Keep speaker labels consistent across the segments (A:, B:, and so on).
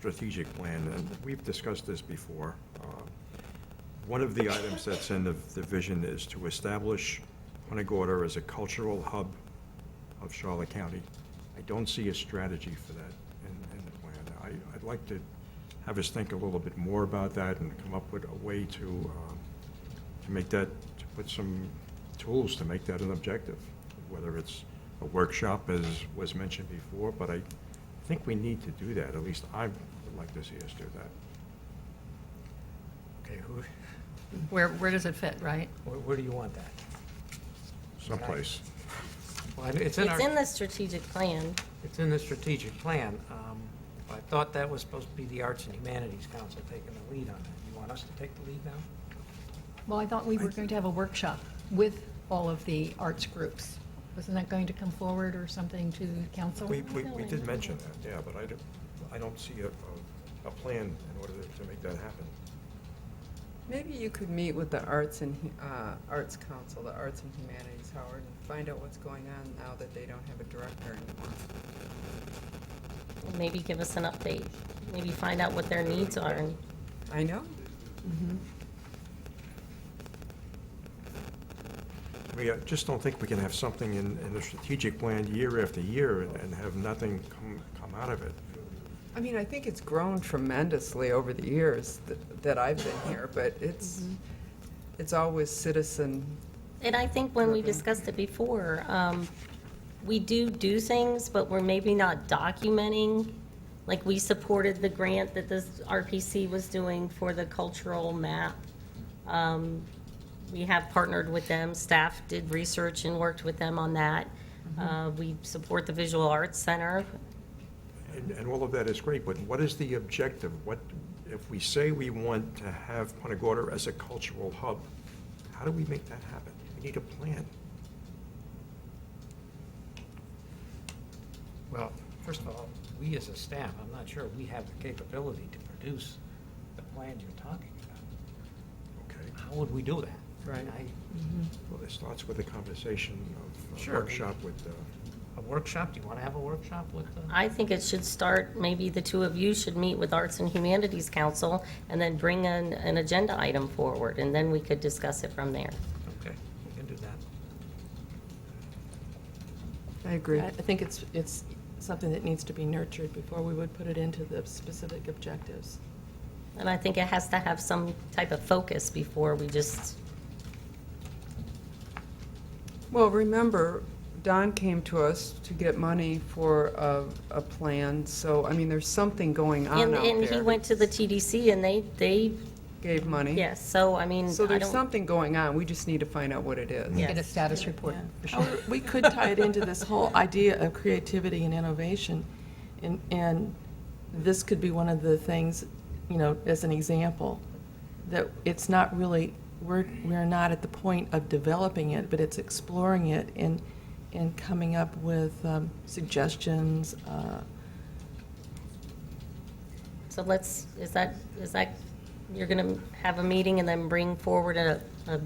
A: strategic plan, and we've discussed this before. Um, One of the items that's in the, the vision is to establish Punta Gorda as a cultural hub of Charlotte County. I don't see a strategy for that in, in the plan. I, I'd like to have us think a little bit more about that and come up with a way to, um, to make that, to put some tools to make that an objective, whether it's a workshop, as was mentioned before, but I think we need to do that, at least I would like to see us do that.
B: Okay, who,
C: Where, where does it fit, right?
B: where, where do you want that?
A: Someplace,
B: Well, I mean, it's in
D: It's in
B: our,
D: the strategic plan.
B: it's in the strategic plan. Um, I thought that was supposed to be the Arts and Humanities Council taking the lead on that. You want us to take the lead now?
C: Well, I thought we were going to have a workshop with all of the arts groups. Wasn't that going to come forward or something to the council?
A: we, we, we did mention that, yeah, but I don't, I don't see a, a- a plan in order to make that happen.
E: Maybe you could meet with the Arts and, Hu- uh, Arts Council, the Arts and Humanities, Howard, and find out what's going on now that they don't have a director anymore.
D: Maybe give us an update. Maybe find out what their needs are. and
E: I know,
A: We uh, just don't think we can have something in, in the strategic plan year after year and- and have nothing come, come out of it.
E: I mean, I think it's grown tremendously over the years th- that I've been here, but it's,
D: Mm-hmm.
E: it's always citizen,
D: And I think when we discussed it before, um, we do do things, but we're maybe not documenting. Like, we supported the grant that this RPC was doing for the cultural map. Um, We have partnered with them, staff did research and worked with them on that. Uh, We support the Visual Arts Center.
A: And, and all of that is great, but what is the objective? What, if we say we want to have Punta Gorda as a cultural hub, how do we make that happen? We need a plan.
B: Well, first of all, we as a staff, I'm not sure we have the capability to produce the plan you're talking about.
A: Okay,
B: How would we do that?
E: Right.
B: I-
A: well, it starts with a conversation of
B: Sure.
A: a workshop with, uh,
B: A workshop, do you want to have a workshop with uh, the?
D: I think it should start, maybe the two of you should meet with Arts and Humanities Council and then bring an, an agenda item forward, and then we could discuss it from there.
B: Okay, we can do that.
E: I agree.
F: I I think it's, it's something that needs to be nurtured before we would put it into the specific objectives.
D: And I think it has to have some type of focus before we just,
E: Well, remember, Don came to us to get money for a, a plan, so, I mean, there's something going on
D: and,
E: out
D: and he
E: there.
D: went to the TDC and they, they,
E: Gave money.
D: yes, so I mean,
E: So
D: I
E: there's
D: don't,
E: something going on, we just need to find out what it is.
C: Get a status report. for sure.
F: However, We could tie it into this whole idea of creativity and innovation, and, and this could be one of the things, you know, as an example, that it's not really, we're, we're not at the point of developing it, but it's exploring it and, and coming up with um, suggestions, uh,
D: so let's, is that, is that, you're gonna have a meeting and then bring forward a, a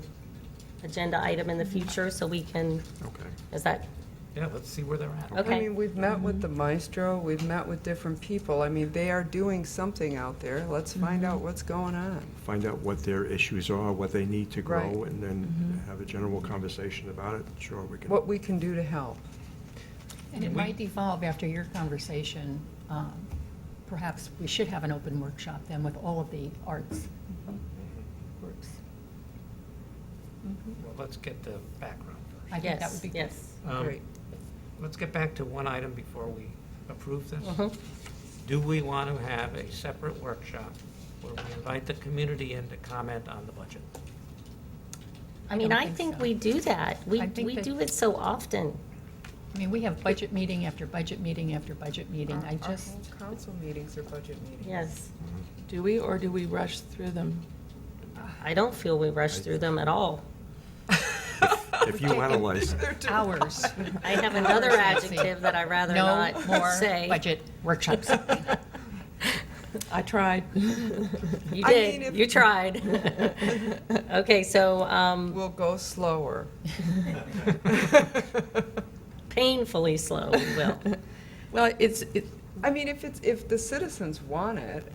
D: agenda item in the future so we can,
A: okay.
D: is that,
B: Yeah, let's see where they're at.
D: okay?
E: I mean, we've met with the maestro, we've met with different people, I mean, they are doing something out there, let's find out what's going on.
A: Find out what their issues are, what they need to grow,
E: Right. Mm-hmm.
A: and then have a general conversation about it. Sure, we can.
E: what we can do to help.
C: And it might evolve after your conversation. um, Perhaps we should have an open workshop then with all of the arts groups.
B: Well, let's get the background first.
C: I think that would be good.
D: Yes,
B: Um,
E: Great.
B: Let's get back to one item before we approve this.
D: Mhm.
B: Do we want to have a separate workshop where we invite the community in to comment on the budget?
D: I mean,
C: don't
D: I
C: think
D: think
C: so.
D: we do that. We,
C: I think
D: we
C: that-
D: do it so often.
C: I mean, we have budget meeting after budget meeting after budget meeting. I
E: Our- our
C: just,
E: whole Council meetings are budget meetings.
D: Yes.
F: do we, or do we rush through them?
D: I don't feel we rush through them at all.
A: If you analyze,
C: hours,
D: I have another adjective that I'd rather
C: no
D: not
C: more
D: say.
C: budget workshops.
F: I tried.
D: You
E: I mean,
D: did,
E: if-
D: you tried. Okay, so um,
E: We'll go slower.
D: painfully slow, we will.
F: Well, it's, it,
E: I mean, if it's, if the citizens want it,